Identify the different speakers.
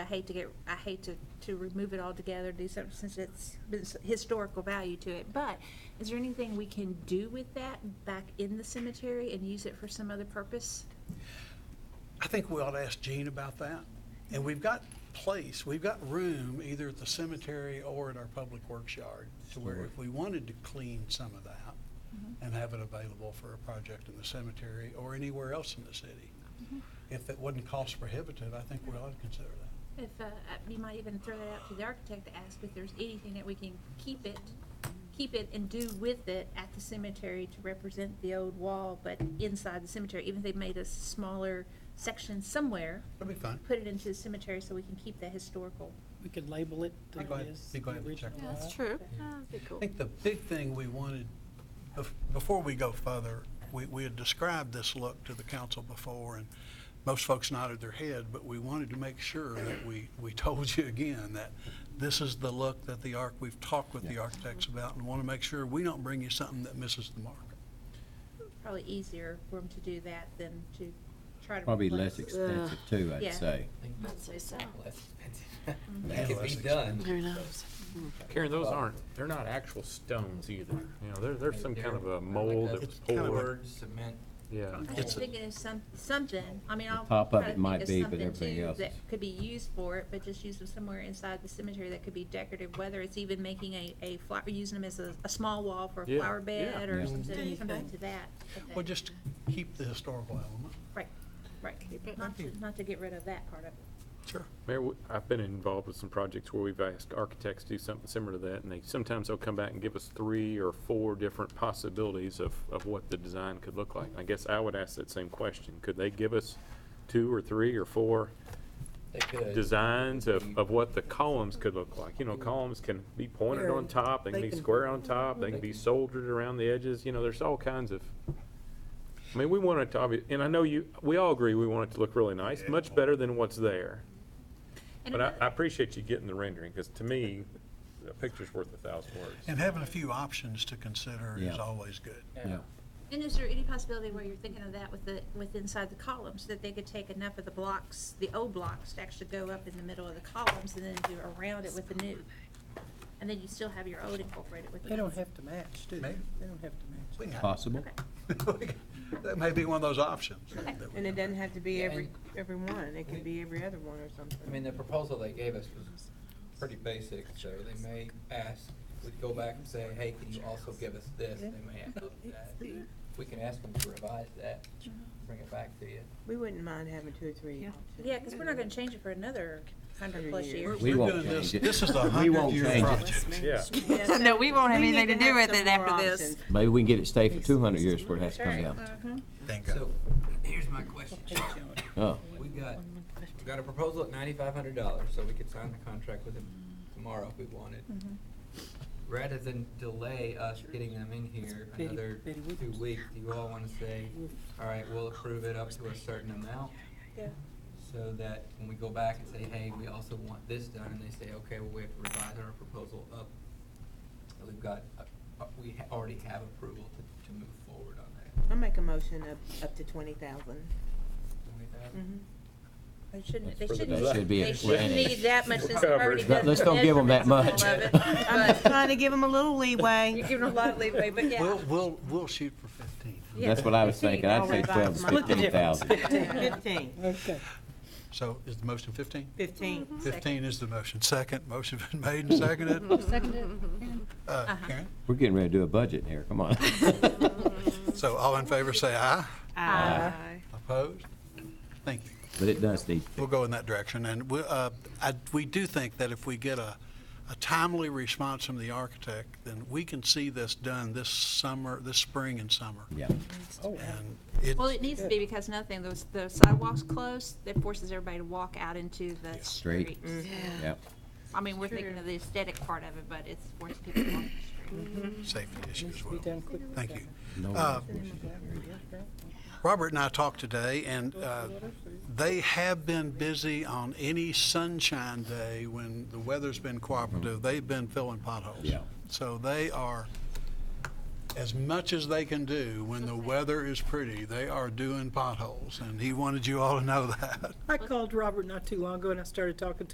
Speaker 1: hate to get, I hate to, to remove it altogether, do something since it's it's historical value to it. But is there anything we can do with that back in the cemetery and use it for some other purpose?
Speaker 2: I think we ought to ask Gene about that. And we've got place, we've got room either at the cemetery or at our public works yard to where if we wanted to clean some of that and have it available for a project in the cemetery or anywhere else in the city. If it wasn't cost prohibitive, I think we ought to consider that.
Speaker 1: If, uh, I- you might even throw that out to the architect to ask if there's anything that we can keep it, keep it and do with it at the cemetery to represent the old wall, but inside the cemetery, even if they made a smaller section somewhere,
Speaker 2: That'd be fun.
Speaker 1: put it into the cemetery so we can keep that historical.
Speaker 3: We could label it.
Speaker 2: I'd go
Speaker 3: that it
Speaker 2: ahead-
Speaker 3: is
Speaker 2: be glad
Speaker 3: the
Speaker 2: to
Speaker 3: original
Speaker 2: check
Speaker 4: Yeah,
Speaker 3: lot.
Speaker 4: That's true. Ah, That'd be
Speaker 2: I
Speaker 4: cool.
Speaker 2: think the big thing we wanted, bef- before we go further, we, we had described this look to the council before, and most folks nodded their head, but we wanted to make sure that we, we told you again that this is the look that the arc, we've talked with the architects about, and want to make sure we don't bring you something that misses the mark.
Speaker 1: Probably easier for them to do that than to try to.
Speaker 5: Probably
Speaker 1: replace
Speaker 5: less
Speaker 1: it.
Speaker 5: expensive too,
Speaker 1: uh, Yeah.
Speaker 5: I'd say.
Speaker 4: I'd say so.
Speaker 6: Less expensive.
Speaker 2: Yeah,
Speaker 7: Mm-hmm.
Speaker 6: That could
Speaker 2: less
Speaker 6: be done.
Speaker 4: Who knows?
Speaker 8: Karen, those aren't, they're not actual stones either. You know, there, there's some kind of a mold that was
Speaker 2: It's kind of a-
Speaker 8: poured,
Speaker 6: Board, cement.
Speaker 8: yeah.
Speaker 1: I
Speaker 2: It's
Speaker 1: was
Speaker 2: a-
Speaker 1: thinking of some, something, I mean, I'll.
Speaker 5: pop-up
Speaker 1: try to
Speaker 5: it
Speaker 1: think
Speaker 5: might
Speaker 1: of
Speaker 5: be, but
Speaker 1: something,
Speaker 5: everything
Speaker 1: too,
Speaker 5: else
Speaker 1: That
Speaker 5: is-
Speaker 1: could be used for it, but just use them somewhere inside the cemetery that could be decorative, whether it's even making a, a flower, using them as a, a small wall for a
Speaker 8: Yeah,
Speaker 1: flower
Speaker 8: yeah.
Speaker 1: bed or
Speaker 5: Yeah.
Speaker 1: something,
Speaker 4: Mhm.
Speaker 1: something to that. effect.
Speaker 2: Well, just keep the historical element.
Speaker 1: Right, right, not to, not to get rid of that part of it.
Speaker 2: Sure.
Speaker 8: Mayor, w- I've been involved with some projects where we've asked architects to do something similar to that, and they, sometimes they'll come back and give us three or four different possibilities of, of what the design could look like. I guess I would ask that same question. Could they give us two or three or four
Speaker 6: They could.
Speaker 8: designs of, of what the columns could look like? You know, columns can be pointed on top, Mm-hmm. they can Mm-hmm. be square on top, they can be soldered around the edges, you know, there's all kinds of. I mean, we want it to, obvi- and I know you, we all agree we want it to look really nice, much better than what's there.
Speaker 1: And
Speaker 8: But I,
Speaker 1: another-
Speaker 8: I appreciate you getting the rendering, because to me, a picture's worth a thousand words.
Speaker 2: And having a few options to consider is
Speaker 5: Yeah.
Speaker 2: always good.
Speaker 5: Yeah.
Speaker 1: And is there any possibility where you're thinking of that with the, with inside the columns, that they could take enough of the blocks, the old blocks, to actually go up in the middle of the columns and then do around it with the new? And then you still have your old incorporated with the.
Speaker 3: They don't have to match, do they?
Speaker 2: Maybe.
Speaker 3: They don't have to match.
Speaker 2: We can have-
Speaker 5: Possible?
Speaker 1: Okay.
Speaker 2: That may be one of those options. that- that we
Speaker 7: And it doesn't have to be
Speaker 6: Yeah,
Speaker 7: every,
Speaker 6: and-
Speaker 7: every one, it could be every other one or something.
Speaker 6: I mean, the proposal they gave us was pretty basic, so they may ask, we'd go back and say, hey, can you also give us this? They may ask us that. We can ask them to revise that,
Speaker 7: Mm-hmm.
Speaker 6: bring it back to you.
Speaker 7: We wouldn't mind having two or three.
Speaker 1: Yeah, because we're not gonna change it for another hundred plus
Speaker 7: Hundred
Speaker 1: years.
Speaker 5: We
Speaker 2: We're
Speaker 5: won't
Speaker 2: doing this-
Speaker 5: change it.
Speaker 2: This is the
Speaker 5: We won't
Speaker 2: hundred-year
Speaker 5: change it.
Speaker 2: project.
Speaker 8: Yeah.
Speaker 7: No, we won't have anything to do with it after
Speaker 4: this.
Speaker 5: Maybe we can get it stayed for two hundred years where it has to come down.
Speaker 1: Mhm.
Speaker 2: Thank God.
Speaker 6: So, here's my question.
Speaker 5: Oh,
Speaker 6: We got, we got a proposal at ninety-five hundred dollars, so we could sign the contract with them tomorrow if we wanted.
Speaker 1: Mm-hmm.
Speaker 6: Rather than delay us getting them in here
Speaker 3: Betty-
Speaker 6: another
Speaker 3: Betty
Speaker 6: two
Speaker 3: Whippers.
Speaker 6: weeks, do you all wanna say, all right, we'll approve it up to a certain amount?
Speaker 1: Yeah.
Speaker 6: So that when we go back and say, hey, we also want this done, and they say, okay, well, we have to revise our proposal up. and We've got, uh, uh, we ha- already have approval to, to move forward on that.
Speaker 7: I'll make a motion up, up to twenty thousand.
Speaker 6: Something like that?
Speaker 7: Mm-hmm.
Speaker 1: Mm-hmm. They shouldn't, they
Speaker 8: for the
Speaker 1: shouldn't,
Speaker 8: design.
Speaker 5: That should be
Speaker 1: they
Speaker 5: it.
Speaker 1: shouldn't need that much since they've already
Speaker 8: Covered.
Speaker 1: done.
Speaker 5: Let's
Speaker 1: the
Speaker 5: don't give 'em that
Speaker 1: measurements and
Speaker 5: much.
Speaker 1: all of it,
Speaker 7: I'm just
Speaker 1: but-
Speaker 7: trying to give them a little leeway.
Speaker 1: You're giving them a lot of leeway, but yeah.
Speaker 2: We'll, we'll, we'll shoot for fifteen.
Speaker 1: Yeah.
Speaker 5: that's what I was thinking. I'd say twelve to
Speaker 7: Split the
Speaker 5: fifteen thousand.
Speaker 7: Fifteen,
Speaker 3: Okay.
Speaker 2: So is the motion fifteen?
Speaker 7: fifteen.
Speaker 1: Mm-hmm.
Speaker 2: Fifteen is the motion. Second, motion been made and seconded. Uh,
Speaker 7: Uh-huh.
Speaker 2: Karen?
Speaker 5: We're getting ready to do a budget here, come on.
Speaker 2: So all in favor, say aye.
Speaker 1: Uh,
Speaker 7: Aye.
Speaker 2: Opposed? Thank you.
Speaker 5: Uh, But it does need,
Speaker 2: We'll go in that direction. And we, uh, I, we do think that if we get a, a timely response from the architect, then we can see this done this summer, this spring and summer.
Speaker 5: yeah.
Speaker 3: Oh, wow.
Speaker 2: And it,
Speaker 1: Well, it needs to be because nothing, those, the sidewalks closed, that forces everybody to walk out into the
Speaker 5: Street.
Speaker 1: street.
Speaker 5: Yep.
Speaker 1: I mean, we're thinking of the aesthetic part of it, but it's forcing people to walk the street.
Speaker 2: safety issue
Speaker 3: Needs
Speaker 2: as
Speaker 3: to be
Speaker 2: well.
Speaker 3: done quickly.
Speaker 2: Thank you.
Speaker 5: No
Speaker 2: Uh,
Speaker 5: enforcement.
Speaker 2: Robert and I talked today, and uh, they have been busy on any sunshine day when the weather's been cooperative. They've been filling potholes.
Speaker 5: Yeah.
Speaker 2: So they are, as much as they can do when the weather is pretty, they are doing potholes. And he wanted you all to know that.
Speaker 3: I called Robert not too long ago and I started talking to